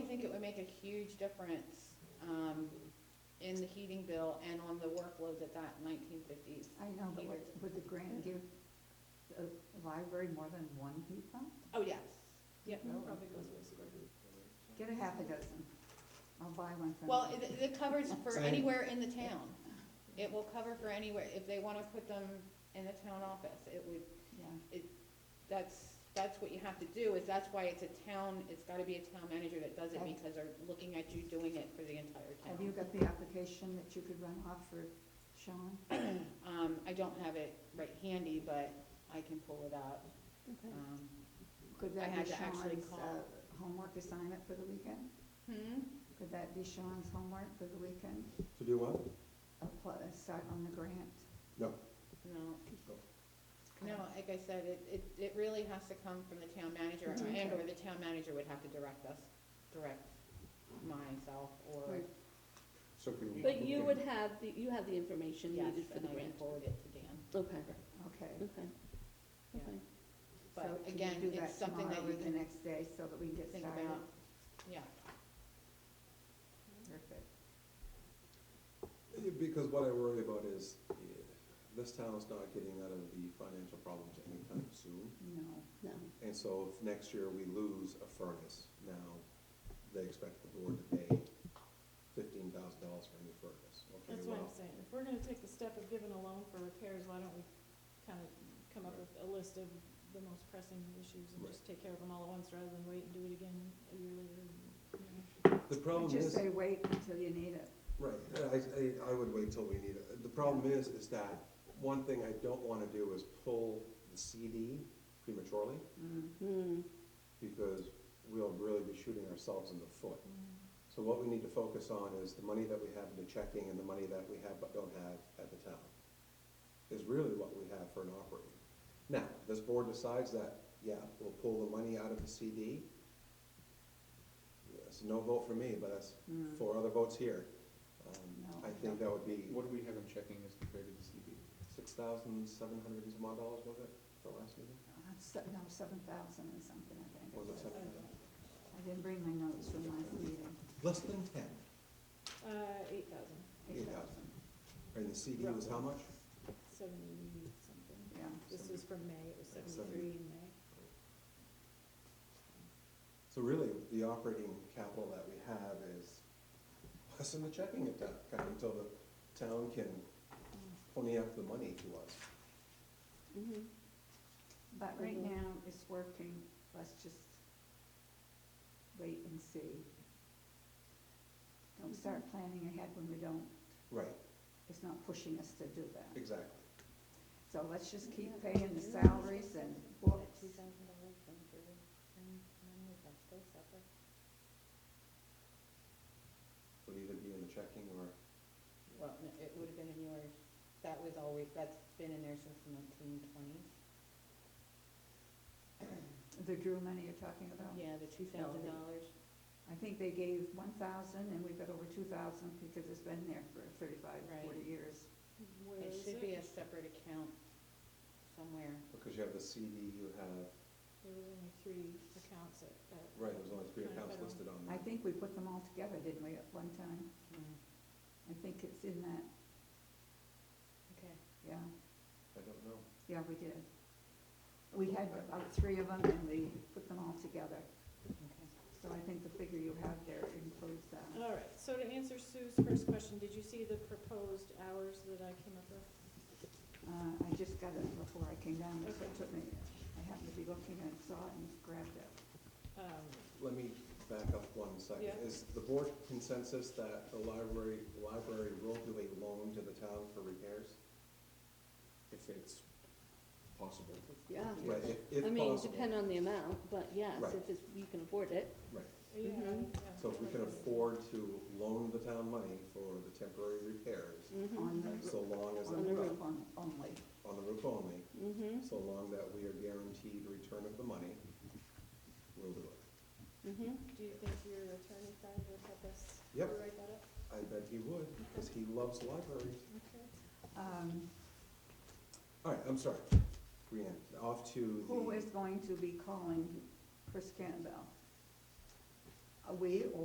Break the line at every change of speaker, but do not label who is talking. huge difference, um, in the heating bill and on the workload that that nineteen fifties.
I know, but would,
Heater.
would the grant give the library more than one heat pump?
Oh, yes, yeah.
No.
Probably goes with square.
Get a half a dozen. I'll buy one from you.
Well, it, it covers for
Same.
anywhere in the town. It will cover for anywhere, if they wanna put them in the town office, it would,
Yeah,
that's, that's what you have to do, is that's why it's a town, it's gotta be a town manager that does it,
Okay.
because they're looking at you doing it for the entire
have you
town.
got the application that you could run off for Sean?
Um, I don't have it right handy, but I can pull it up,
Okay.
um.
Could
I
that
had
be
to actually
Sean's,
call.
uh, homework assignment for the weekend?
Hmm,
Could that be Sean's homework for the weekend?
To do what?
Apply, start on the grant?
No.
no.
No.
No, like I said, it, it, it really has to come from the town manager,
Okay.
and or the town manager would have to direct us, direct myself, or,
Right.
So can we?
But you would have, the you have the information
yes,
needed for
and
the
I can
grant.
forward it to Dan.
Okay,
Okay.
okay,
Yeah.
okay.
So
But
can you
again,
do
it's
that
something that
tomorrow
you
or
can
the next day so that we can get
think
started?
about, yeah.
Perfect.
Because what I worry about is, eh, this town's not getting out of the financial problems anytime soon.
No.
No,
And so if next year we lose a furnace, now they expect the board to pay fifteen thousand dollars for a new furnace. Okay,
That's what
well,
I'm saying, if we're gonna take the step of giving a loan for repairs, why don't we kind of come up with a list of the most pressing issues and just take care of them all at once rather than wait and do it again a year later, you know?
I
The problem
just
is,
say wait until you need it.
right, I, I, I would wait till we need it. The problem is, is that one thing I don't wanna do is pull the CD prematurely.
Mm.
hmm,
because we'll really be shooting ourselves in the foot.
Mm-hmm.
So what we need to focus on is the money that we have into checking and the money that we have but don't have at the town. Is really what we have for an operating. Now, this board decides that, yeah, we'll pull the money out of the CD. That's a no vote for me, but that's
Mm.
four other votes here. Um,
No.
I think that would be
What do we have in checking as compared to the CD?
six thousund seven hundred and some odd dollars, was it, the last meeting?
Uh, se- No, seven thousand and something, I think. it
Was it
was.
seven thousand?
I didn't bring my notes from last meeting.
Less than ten.
Uh, eight thousand,
Eight thousand. And the CD was how much?
seventy something,
Yeah.
this was from May, it was
Seventy.
seventy-three in May.
So really, the operating capital that we have is less than the checking account account until the town can pony up the money to us.
hmm
But right
Mhm.
now, it's working, let's just wait and see. Don't start planning ahead when we don't,
Right,
it's not pushing us to do that.
exactly.
So let's just keep paying the salaries and books.
Two thousand dollars from Drew, and, and is that still separate?
Would either be in the checking or,
Well, no, it would have been in yours, that was always, that's been in there since the nineteen twenties.
The Drew money you're talking about?
Yeah, the two thousand dollars.
I think they gave one thousand and we've got over two thousand because it's been there for 35, 40
Right.
years.
Where
It
is
should be a
it?
separate account somewhere.
because you have the CD, you have,
There was only three accounts at, at.
right, there's only three
Kind of
accounts listed
federal.
on
I
there.
think we put them all together, didn't we, at one time? I think it's in that,
Okay.
yeah,
I don't know.
yeah, we did. We had about three of them and we put them all together.
Okay.
So I think the figure you have there includes that.
All right, so to answer Sue's first question, did you see the proposed hours that I came up with?
Uh, I just got it before I came down, so it
Okay.
took me, I happened to be looking and saw it and grabbed it.
Um,
Let me back up one second.
Yeah.
Is the board consensus that the library, library will do a loan to the town for repairs?
If it's possible.
yeah.
Right, if, if
I mean,
possible.
depend on the amount, but yes,
Right.
if it's, you can afford it,
Right.
Mhm.
Yeah, yeah.
Mm-hmm. So if we can afford to loan the town money for the temporary repairs,
hmm
On the,
so long as,
on
On
the
the
roof
roof.
on- only.
on the roof only,
hmm
so long that we are guaranteed return of the money, we'll do it.
hmm
Do you think your attorney friend would help us
Yep.
rewrite that up?
I bet he would, because he loves libraries.
Okay.
Um,
All right, I'm sorry, Brianne, off to the.
Who is going to be calling Chris Campbell? Are Uh, we